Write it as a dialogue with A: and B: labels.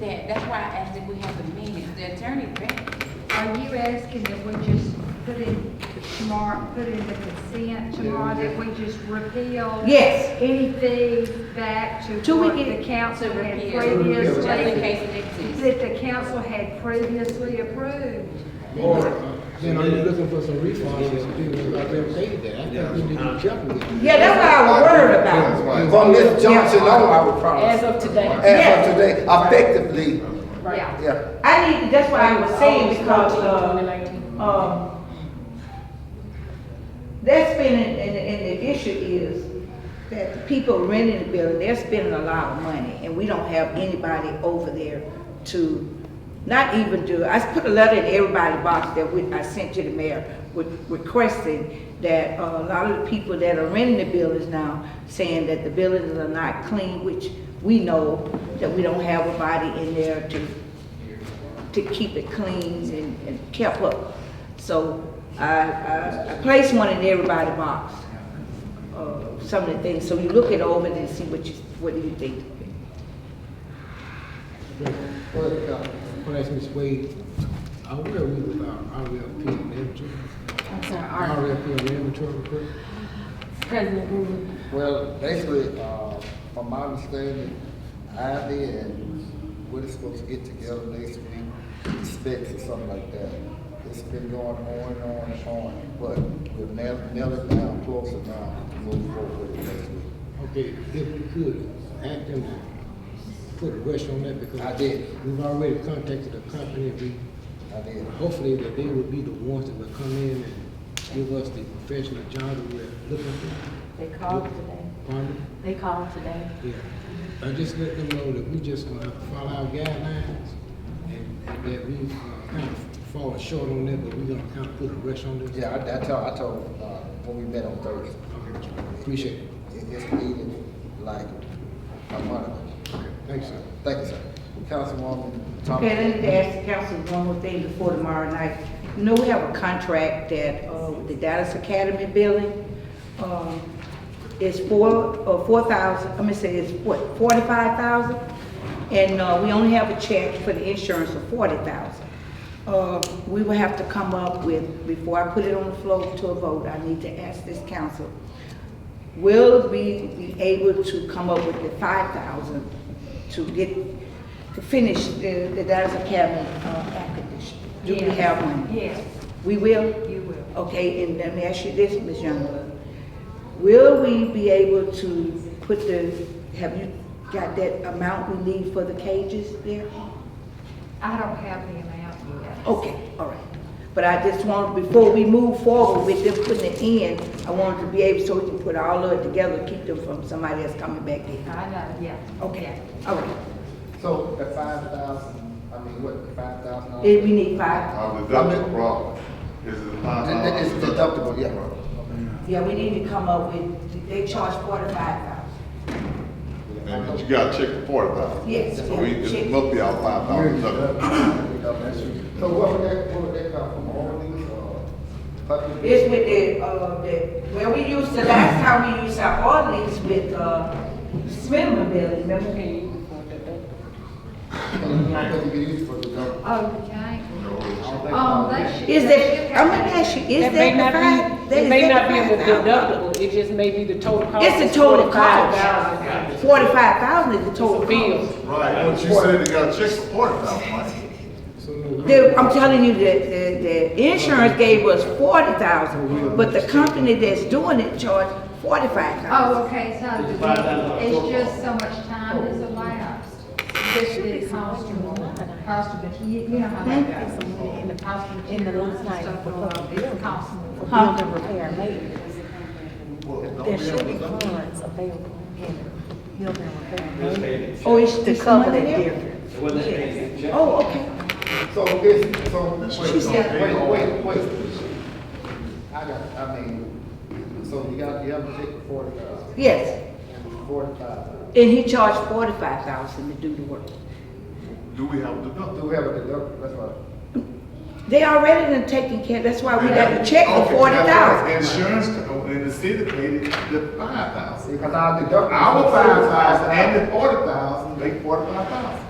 A: that, that's why I asked if we have the meeting, the attorney back.
B: Are you asking that we just put in tomorrow, put in the consent tomorrow, that we just repeal?
C: Yes.
B: Anything back to
C: Till we
B: what
C: get-
B: the council
A: to
B: had
A: repeal. To
D: repeal.
B: previously?
A: Just in case it exists.
B: That the council had previously approved.
D: Or, then are you looking for some refunds or something, like they stated that, I think you need to check with them.
C: Yeah, that's what I was worried about.
E: From Ms. Johnson on, I would
F: As
E: probably,
F: of today.
E: as of today, effectively,
B: Yeah.
E: yeah.
C: I need, that's what I was saying because, uh, um, that's been, and, and and the issue is that the people renting the building, they're spending a lot of money and we don't have anybody over there to, not even do, I put a letter in everybody's box that we, I sent to the mayor with- requesting that uh, a lot of the people that are renting the buildings now, saying that the buildings are not clean, which we know that we don't have a body in there to to keep it clean and, and kept up. So I, I, I placed one in everybody's box, uh, some of the things, so you look it over and see what you, what do you think.
D: But, uh, when I asked Ms. Wade, I where we with uh, our RFP and inventory?
F: I'm sorry, our
D: RFP and inventory report?
F: President Green.
G: Well, basically, uh, from my understanding, Ivy and we're supposed to get together next week, specs or something like that. It's been going on and on and on, but we've nailed, nailed it down closer now to move forward with it next week.
D: Okay, if we could, ask them to put a rush on that because.
G: I did.
D: We've already contacted the company, we,
G: I did.
D: hopefully that they will be the ones that will come in and give us the professional job that we're looking for.
F: They called today.
D: Pardon?
F: They called today.
D: Yeah, I just let them know that we just gonna have to follow our guidelines and and that we uh, kind of fall short on that, but we gonna kind of put a rush on this.
G: Yeah, I, I told, I told, uh, when we met on Thursday,
D: Okay, Appreciate it.
G: it, it's needed like a month ago.
D: Thanks, sir.
G: Thank you, sir. Councilwoman Thompson.
C: Okay, let me ask the council one more thing before tomorrow night. You know, we have a contract that, uh, with the Dallas Academy building, um, it's four, uh, four thousand, I'm gonna say it's what, forty-five thousand? And, uh, we only have a check for the insurance of forty thousand. Uh, we will have to come up with, before I put it on the floor to a vote, I need to ask this council, will we be able to come up with the five thousand to get, to finish the, the Dallas Academy, uh, air conditioning? Do we
B: Yes.
C: have one?
B: Yes,
C: We will?
B: you will.
C: Okay, and let me ask you this, Ms. Youngblood. Will we be able to put the, have you got that amount we need for the cages there?
B: I don't have the amount yet.
C: Okay, all right. But I just want, before we move forward with them putting it in, I wanted to be able, so we can put all of it together, keep them from somebody else coming back in.
B: I know, yeah.
C: Okay, all right.
G: So the five thousand, I mean, what, the five thousand dollars?
C: If we need five,
H: Uh, deductible problem is the five dollars.
G: It's deductible, yeah.
C: yeah, we need to come up with, they charge forty-five thousand.
H: And but you gotta check the forty thousand.
C: Yes.
H: So we, it must be our five dollars deductible.
G: So what would that, what would that come from, all these, uh, public?
C: It's with the, uh, the, well, we used, the last time we used our ordinance with, uh, Smithman Building, remember?
G: Because you can use it for deductible.
B: Okay.
G: I don't think-
B: Um, they should.
C: Is
B: they should
C: that, I'm
B: have
C: gonna ask you, is
F: That may
C: that
F: not
C: the five?
F: be,
C: that-
F: it
C: is
F: may
C: that
F: not
C: the
F: be the
C: 5,000?
F: deductible, it just may be the total cost.
C: It's the total
F: $45,000.
C: cost. Forty-five thousand is the
F: It's a
C: total
F: bill.
C: cost.
H: Right, but you said you gotta check the forty thousand, right?
D: So no.
C: The, I'm telling you, that the, the insurance gave us forty thousand, but the company that's doing it charged forty-five thousand.
B: Oh, okay, so the- it's just so much time has elapsed. This is constable, constable, he, you know how that goes. In the constable, in the last night. It's constable.
I: building repair maintenance. There should be funds available in building repair maintenance
C: Oh, it's
I: to
C: it's
I: cover
C: money
I: that
C: there?
I: difference.
C: Oh, okay.
G: So it's, so, wait,
C: said-
G: wait, wait, wait. I got, I mean, so you got, you have to take the uh, forty thousand,
C: Yes,
G: forty-five.
C: and he charged forty-five thousand to do the work.
H: Do we have a deductible?
G: Do we have a deductible, that's what.
C: They already done taken care, that's why Uh, we got to check
H: Okay, that's
C: the
H: what
C: forty thousand.
H: Insurance, company and the city paid it the five thousand.
G: Because our deductible.
H: Our five thousand and the forty thousand, make forty-five thousand.